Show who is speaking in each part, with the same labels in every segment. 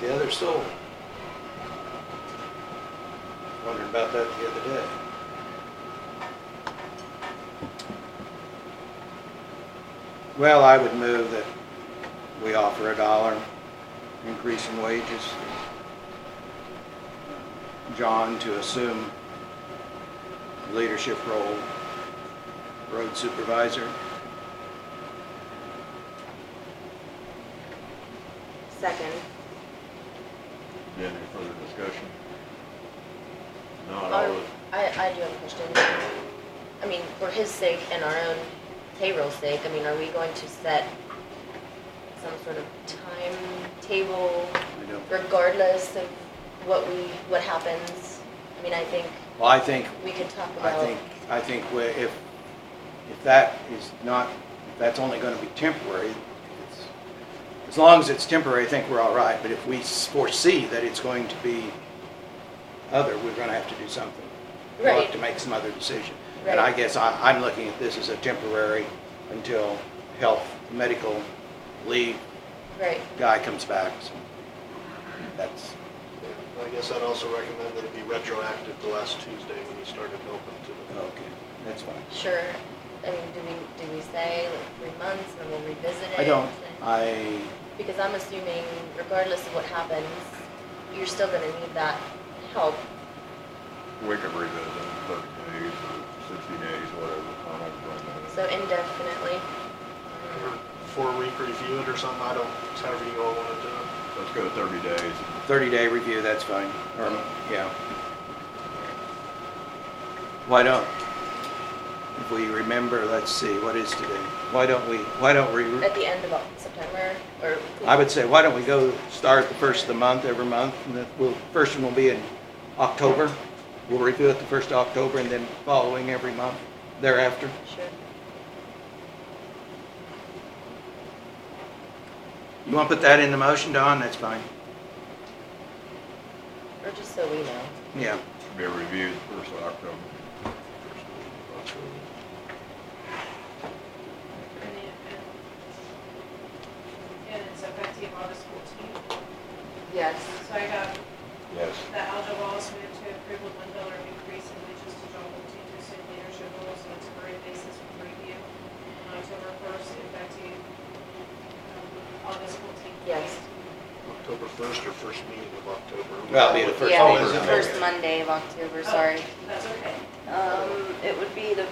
Speaker 1: the other sold. Wondering about that the other day. Well, I would move that we offer a dollar increase in wages. John to assume leadership role, road supervisor.
Speaker 2: Second.
Speaker 3: Any further discussion? Not all
Speaker 4: Our-
Speaker 3: of,
Speaker 4: I, I do have a question. I mean, for his sake and our own payroll's sake, I mean, are we going to set some sort of timetable
Speaker 1: I don't-
Speaker 4: regardless of what we, what happens? I mean, I think
Speaker 1: Well, I think
Speaker 4: we could talk
Speaker 1: I
Speaker 4: about.
Speaker 1: think, I think where if, if that is not, if that's only gonna be temporary, it's, as long as it's temporary, I think we're all right, but if we foresee that it's going to be other, we're gonna have to do something. We'll have
Speaker 4: Right.
Speaker 1: to make some other decision. And I
Speaker 4: Right.
Speaker 1: guess I, I'm looking at this as a temporary until health, medical leave
Speaker 4: Right,
Speaker 1: guy comes back, so that's,
Speaker 5: I guess I'd also recommend that it be retroactive to last Tuesday when you started open to the
Speaker 1: okay, that's fine.
Speaker 4: sure. I mean, do we, do we say like three months and then we'll revisit it?
Speaker 1: I don't,
Speaker 4: And-
Speaker 1: I,
Speaker 4: Because I'm assuming regardless of what happens, you're still gonna need that help.
Speaker 3: we can revisit in thirty days or sixty days, whatever, I don't know.
Speaker 4: So indefinitely.
Speaker 5: or four-week review it or something, I don't, it's however you all want to do it.
Speaker 3: Let's go to thirty days.
Speaker 1: 30-day review, that's fine, or, yeah. Why don't, if we remember, let's see, what is today? Why don't we, why don't we,
Speaker 4: At the end of Oc- September, or?
Speaker 1: I would say, why don't we go start the first of the month, every month, and then we'll, first one will be in October. We'll review it the first of October and then following every month thereafter.
Speaker 4: Sure.
Speaker 1: You want to put that in the motion, Don? That's fine,
Speaker 4: Or just so we know.
Speaker 1: yeah.
Speaker 3: Should Be reviewed first of October.
Speaker 6: And it- And it's effective August fourteenth.
Speaker 2: Yes.
Speaker 6: So I got
Speaker 3: Yes.
Speaker 6: that Aljo Wallace moved to approve a one dollar increase in wages to John Bolte to assume leadership roles on a temporary basis with review on October first, effective um, August fourteenth.
Speaker 4: Yes.
Speaker 5: October 1st or first meeting of October.
Speaker 1: Well, it'll be the first
Speaker 2: Yeah,
Speaker 1: October,
Speaker 2: it's the
Speaker 1: okay.
Speaker 2: first Monday of October,
Speaker 6: Oh.
Speaker 2: sorry.
Speaker 6: That's okay.
Speaker 2: Um, it would be the,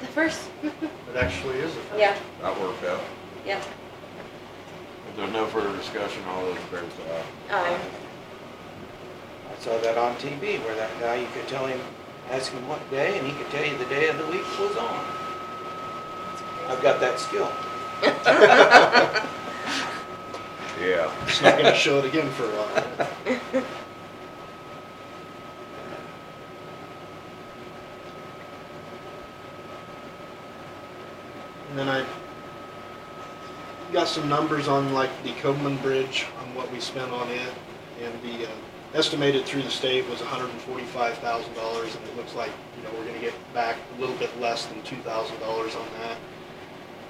Speaker 2: the first,
Speaker 5: It actually is the first.
Speaker 2: yeah,
Speaker 3: That worked out.
Speaker 2: yeah.
Speaker 3: If there's no further discussion, all those in favor say aye.
Speaker 4: Aye.
Speaker 1: I saw that on TV where that guy, you could tell him, ask him what day, and he could tell you the day of the week was on. I've got that skill.
Speaker 3: Yeah.
Speaker 5: It's not gonna show it again for a while. And then I got some numbers on like the Coleman Bridge, on what we spent on it. And the uh, estimated through the state was hundred and forty-five thousand dollars, and it looks like, you know, we're gonna get back a little bit less than two thousand dollars on that.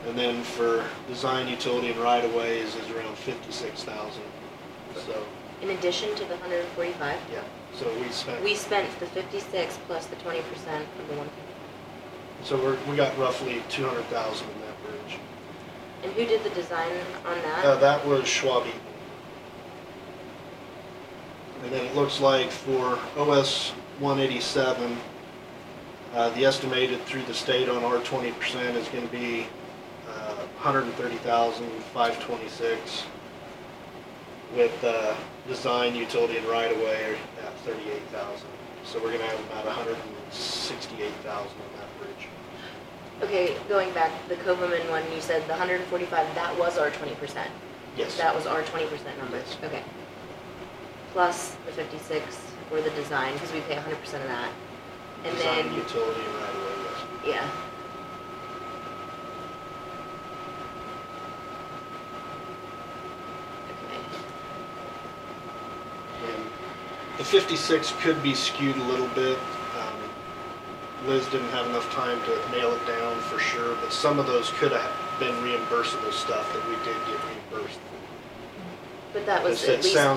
Speaker 5: And then for design utility and right of ways is around fifty-six thousand. So,
Speaker 4: In addition to the hundred and forty-five,
Speaker 5: yeah, so we spent,
Speaker 4: we spent the fifty-six plus the twenty percent of the one.
Speaker 5: so we're, we got roughly two hundred thousand in that bridge.
Speaker 4: And who did the design on
Speaker 5: Uh,
Speaker 4: that?
Speaker 5: that was Schwab Eaton. And then it looks like for OS one eighty-seven, uh, the estimated through the state on our twenty percent is gonna be, uh, hundred and thirty thousand, five twenty-six. With, uh, design, utility, and right-of-way at thirty-eight thousand. So we're gonna have about hundred and sixty-eight thousand on that bridge.
Speaker 4: Okay, going back, the Covaman one, you said the hundred and forty-five, that was our twenty percent.
Speaker 5: Yes.
Speaker 4: That was our twenty percent number,
Speaker 5: Yes.
Speaker 4: okay. Plus the fifty-six for the design, because we pay hundred percent of that. And
Speaker 5: Design,
Speaker 4: then,
Speaker 5: utility, and right-of-way, yes.
Speaker 4: yeah. Okay.
Speaker 5: And The 56 could be skewed a little bit. Um, Liz didn't have enough time to nail it down for sure, but some of those could have been reimbursable stuff that we did get reimbursed.
Speaker 4: But that was
Speaker 5: It's-
Speaker 4: at
Speaker 5: It
Speaker 4: least
Speaker 5: sounds